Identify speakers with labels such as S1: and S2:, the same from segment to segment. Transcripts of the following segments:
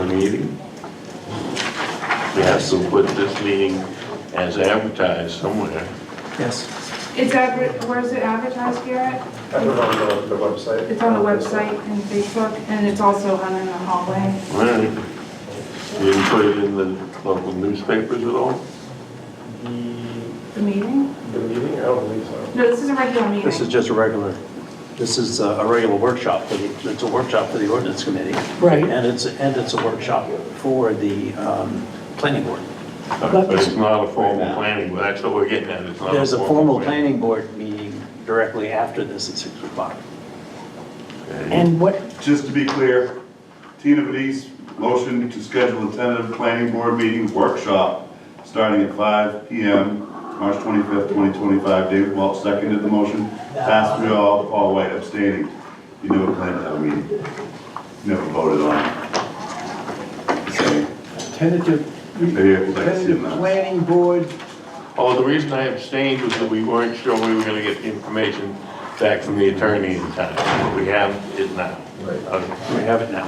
S1: meeting. Yes, and put this meeting as advertised somewhere.
S2: Yes.
S3: It's adver, where is it advertised, Garrett?
S4: I don't know the, the website.
S3: It's on the website and Facebook, and it's also hung in the hallway.
S1: All right. You didn't put it in the local newspapers at all?
S4: The,
S3: The meeting?
S4: the meeting, I don't believe so.
S3: No, this is a regular meeting.
S2: This is just a regular, this is a a regular workshop, for the- it's a workshop for the ordinance committee.
S5: Right.
S2: And it's, and it's a workshop for the um, planning board.
S1: But it's not a formal planning, but that's what we're getting at, it's not a formal.
S2: There's a formal planning board meeting directly after this at 6 o'clock.
S1: Okay.
S5: And what,
S6: Just to be clear, Tina Vadis, motion to schedule a tentative planning board meeting workshop starting at 5 PM, March 25th, 2025. David Welch seconded the motion. Passed through all, Paul White abstaining. You never planned to have a meeting. You Never voted on it. So,
S5: tentative,
S6: Maybe I could like to see
S5: tentative
S6: that.
S5: planning board,
S1: Oh, the reason I abstained was that we weren't sure we were gonna get the information back from the attorney in time. What we have is now. Okay.
S2: We have it now.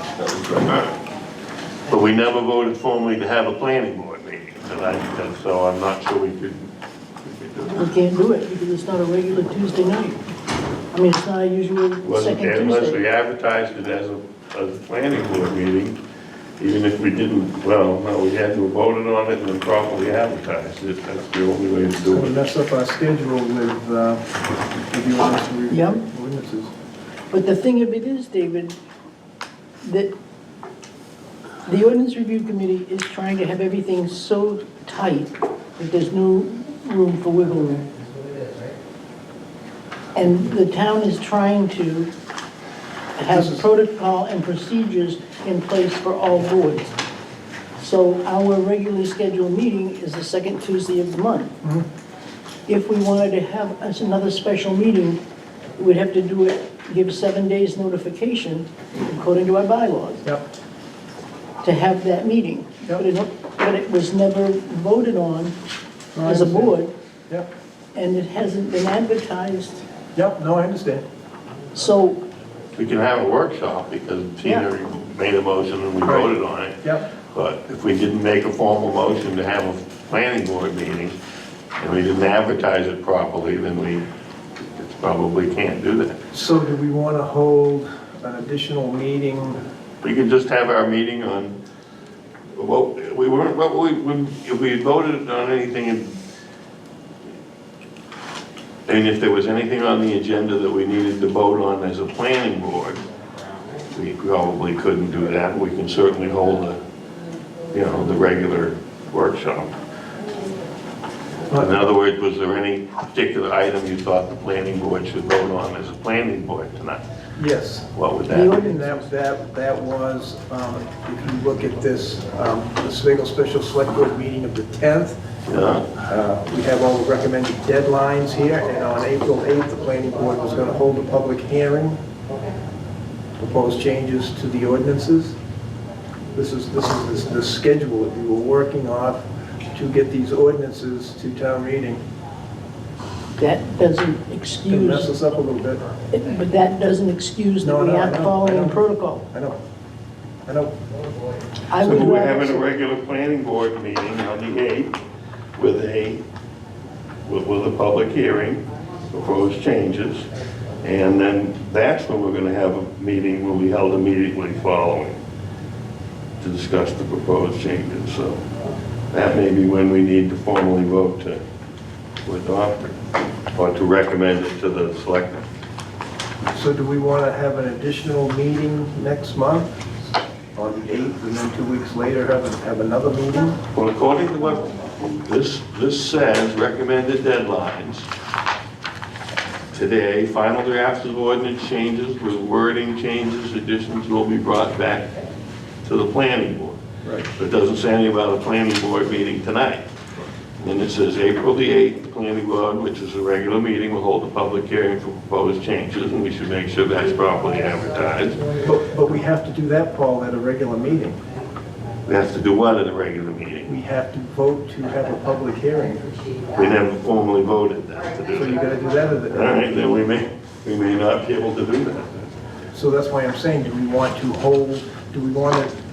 S1: But we never voted formally to have a planning board meeting, and I, and so I'm not sure we could. we could do it.
S5: we can't do it because it's not a regular Tuesday night. I mean, it's not a usual
S1: Wasn't,
S5: second Tuesday.
S1: unless we advertised it as a, as a planning board meeting, even if we didn't, well, no, we had to have voted on it and then properly advertised it, that's the only way to
S7: So we
S1: do it.
S7: mess up our schedule with, uh, with the ordinance re-
S5: Yeah.
S7: ordinances.
S5: But the thing of it is, David, that the ordinance review committee is trying to have everything so tight that there's no room for wiggle room. And the town is trying to have protocol and procedures in place for all boards. So our regularly scheduled meeting is the second Tuesday of the month.
S7: Mm-hmm.
S5: If we wanted to have us another special meeting, we'd have to do it, give seven days notification according to our bylaws
S7: Yep.
S5: to have that meeting.
S7: Yep.
S5: But it, but it was never voted on
S7: No, I
S5: as a
S7: understand.
S5: board,
S7: Yep,
S5: and it hasn't been advertised,
S7: yep, no, I understand.
S5: so,
S1: We can have a workshop because Tina made a motion and we
S7: Right.
S1: voted on it.
S7: Yep,
S1: But if we didn't make a formal motion to have a planning board meeting, and we didn't advertise it properly, then we it's probably can't do that.
S7: so do we want to hold an additional meeting?
S1: We could just have our meeting on, well, we weren't, but we, we- if we had voted on anything, and- and if there was anything on the agenda that we needed to vote on as a planning board, we probably couldn't do that. We can certainly hold a, you know, the regular workshop. In other words, was there any particular item you thought the planning board should vote on as a planning board tonight?
S7: Yes.
S1: What would
S7: The
S1: that be?
S7: ordinance that, that, that was, um, if you look at this, um, the Sligo Special Select Board meeting of the 10th,
S1: Yeah.
S7: Uh, We have all the recommended deadlines here, and on April 8th, the planning board was going to hold a public hearing, propose changes to the ordinances. This is, this is the the schedule that we were working off to get these ordinances to town meeting.
S5: that doesn't
S7: It mess
S5: excuse,
S7: us up a little bit.
S5: but that doesn't excuse that
S7: No,
S5: we
S7: no, I
S5: aren't
S7: know, I
S5: following
S7: know.
S5: protocol.
S7: I know, I know.
S5: I
S1: So
S5: would
S1: we're
S5: rather,
S1: having a
S5: see-
S1: regular planning board meeting on the 8th with a, with, with a public hearing, proposed changes. And then that's when we're gonna have a meeting, will be held immediately following to discuss the proposed changes. So that may be when we need to formally vote to, to adopt it or to recommend it to the selectmen.
S7: So do we want to have an additional meeting next month on the 8th, and then two weeks later have, a- have another meeting?
S1: Well, according to what this, this says, recommended deadlines, today, final drafts of ordinance changes with wording changes, additions will be brought back to the planning board.
S7: Right.
S1: But it doesn't say anything about a planning board meeting tonight. And it says April the 8th, the planning board, which is a regular meeting, will hold a public hearing for proposed changes, and we should make sure that's properly advertised.
S7: But, but we have to do that, Paul, at a regular meeting.
S1: We have to do what at a regular meeting?
S7: We have to vote to have a public hearing.
S1: We never formally voted that to do
S7: So
S1: that.
S7: you gotta do that at
S1: All
S7: the,
S1: right, then we may, we may not be able to do that.
S7: so that's why I'm saying, do we want to hold, do we want to